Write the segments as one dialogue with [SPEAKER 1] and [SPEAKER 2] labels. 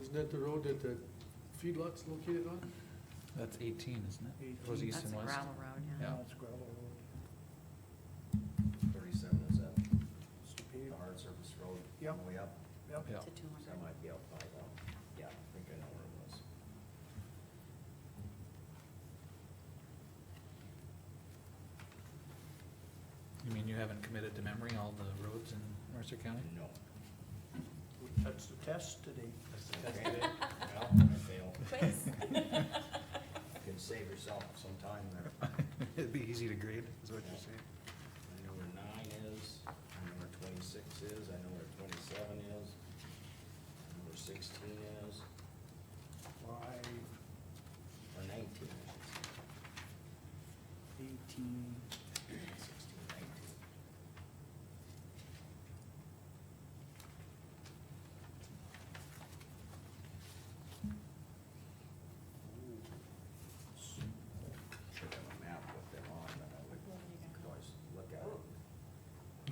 [SPEAKER 1] Isn't that the road that the feedlot's located on?
[SPEAKER 2] That's eighteen, isn't it? Goes
[SPEAKER 1] 18.
[SPEAKER 2] east
[SPEAKER 3] That's a
[SPEAKER 2] and west.
[SPEAKER 3] gravel road, yeah.
[SPEAKER 2] Yeah.
[SPEAKER 4] It's gravel road.
[SPEAKER 5] Thirty-seven is that
[SPEAKER 4] It's
[SPEAKER 5] the
[SPEAKER 4] paved.
[SPEAKER 5] hard surface road?
[SPEAKER 4] Yep.
[SPEAKER 5] Way up,
[SPEAKER 4] Yep.
[SPEAKER 2] Yeah.
[SPEAKER 3] To two
[SPEAKER 5] so that
[SPEAKER 3] hundred.
[SPEAKER 5] might be up by now. Yeah, I think I know where it was.
[SPEAKER 2] You mean you haven't committed to memory all the roads in Mercer County?
[SPEAKER 5] No.
[SPEAKER 4] That's the test today.
[SPEAKER 5] That's the test of it. Well, I failed. You Can save yourself some time there.
[SPEAKER 2] It'd be easy to grade, is what you're saying.
[SPEAKER 5] I know where nine is, I know where twenty-six is, I know where twenty-seven is, I know where sixteen is,
[SPEAKER 4] Why
[SPEAKER 5] or nineteen, I should say.
[SPEAKER 4] eighteen,
[SPEAKER 5] Sixteen, nineteen. Should have a map with them on, but I would could always look at it.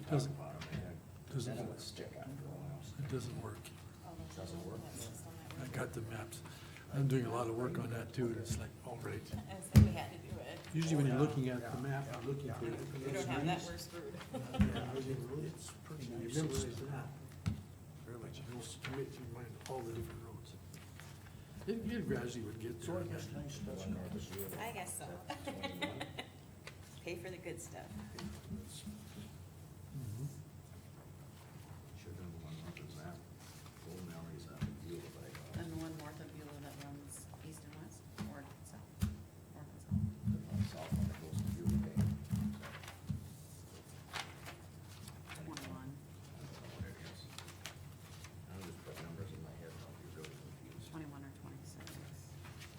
[SPEAKER 1] It doesn't,
[SPEAKER 5] Top and bottom, and
[SPEAKER 1] doesn't
[SPEAKER 5] Then it
[SPEAKER 1] work.
[SPEAKER 5] would stick out for a while.
[SPEAKER 1] it doesn't work.
[SPEAKER 5] Doesn't work.
[SPEAKER 1] I got the maps. I'm doing a lot of work on that too, and it's like, all right.
[SPEAKER 6] I was like, we had to do it.
[SPEAKER 1] Usually when you're
[SPEAKER 4] Yeah,
[SPEAKER 1] looking at the
[SPEAKER 4] yeah,
[SPEAKER 1] map,
[SPEAKER 4] yeah,
[SPEAKER 1] you're looking
[SPEAKER 4] yeah.
[SPEAKER 1] for.
[SPEAKER 6] If we don't have that, we're screwed.
[SPEAKER 4] It's pretty
[SPEAKER 1] You
[SPEAKER 4] nice.
[SPEAKER 1] memorize the map. Very much, you just commit to your mind all the different roads. It you gradually would get
[SPEAKER 4] So
[SPEAKER 1] there.
[SPEAKER 4] I guess nice
[SPEAKER 5] One
[SPEAKER 4] doesn't
[SPEAKER 5] north of Rio.
[SPEAKER 6] I guess so.
[SPEAKER 5] Is that 21?
[SPEAKER 6] Pay for the good stuff.
[SPEAKER 1] Mhm.
[SPEAKER 5] Should have one north of that. Old memories of Beulah, but I got
[SPEAKER 3] And the one north of Beulah that runs east and west, or south, or south.
[SPEAKER 5] the south one that goes to Beulah Bay.
[SPEAKER 3] Twenty-one.
[SPEAKER 5] I don't know what it is. I'm just putting numbers in my head, and I'll be really confused.
[SPEAKER 3] 21 or twenty-six.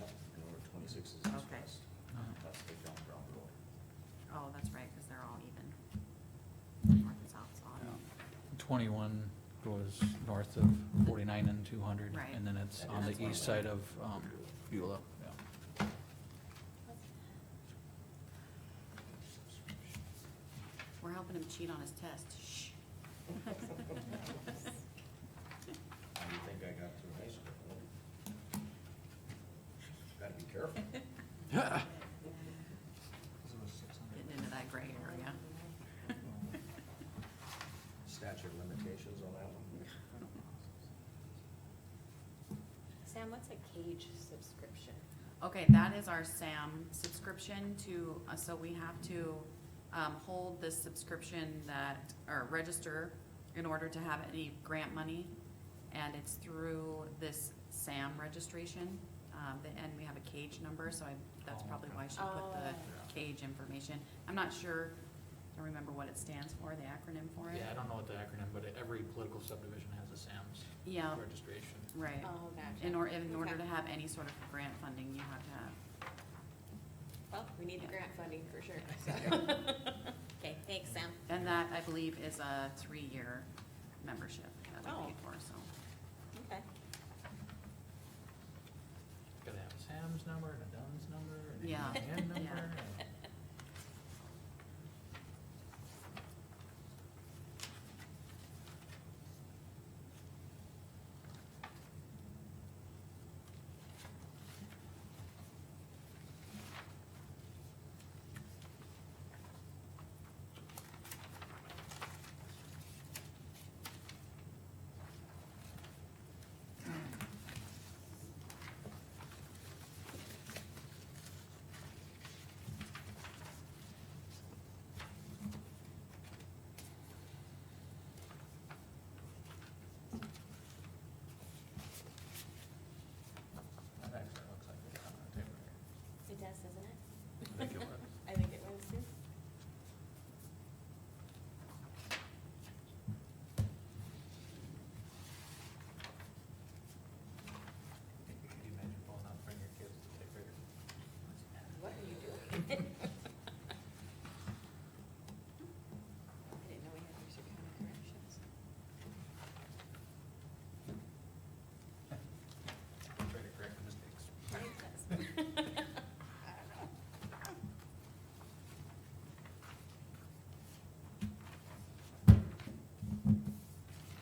[SPEAKER 5] No, I know where twenty-six is east
[SPEAKER 3] Okay.
[SPEAKER 5] west. That's the John Brown Road.
[SPEAKER 3] Oh, that's right, because they're all even. North and south's all even.
[SPEAKER 2] Twenty-one goes north of forty-nine and two hundred.
[SPEAKER 3] Right.
[SPEAKER 2] And then it's
[SPEAKER 3] And
[SPEAKER 2] on
[SPEAKER 3] that's
[SPEAKER 2] the
[SPEAKER 3] one
[SPEAKER 2] east
[SPEAKER 3] way.
[SPEAKER 2] side of, um, Beulah, yeah.
[SPEAKER 3] We're helping him cheat on his test. Shh.
[SPEAKER 5] How do you think I got through high school? Well, Gotta be careful.
[SPEAKER 3] Getting into that gray area.
[SPEAKER 5] Statute of limitations on that one.
[SPEAKER 6] Sam, what's a cage subscription?
[SPEAKER 3] Okay, that is our SAM subscription to, uh, so we have to um, hold this subscription that, or register in order to have any grant money. And it's through this SAM registration, um, the- and we have a cage number, so I, that's
[SPEAKER 2] Oh,
[SPEAKER 3] probably
[SPEAKER 2] okay.
[SPEAKER 3] why she put
[SPEAKER 5] Oh.
[SPEAKER 3] the cage information. I'm not sure, I don't remember what it stands for, the acronym for it.
[SPEAKER 2] Yeah, I don't know what the acronym, but every political subdivision has a SAM's
[SPEAKER 3] Yeah,
[SPEAKER 2] registration.
[SPEAKER 3] right.
[SPEAKER 6] Oh, gotcha.
[SPEAKER 3] In or, in order to
[SPEAKER 6] Okay.
[SPEAKER 3] have any sort of grant funding, you have to have,
[SPEAKER 6] Well, we need the grant funding for sure. so. Okay, thanks, Sam.
[SPEAKER 3] and that, I believe, is a three-year membership that we
[SPEAKER 6] Oh.
[SPEAKER 3] paid for, so.
[SPEAKER 6] Okay.
[SPEAKER 2] Gotta have a SAM's number and a DUNS number and
[SPEAKER 3] Yeah,
[SPEAKER 2] an EIN
[SPEAKER 3] yeah.
[SPEAKER 2] number and.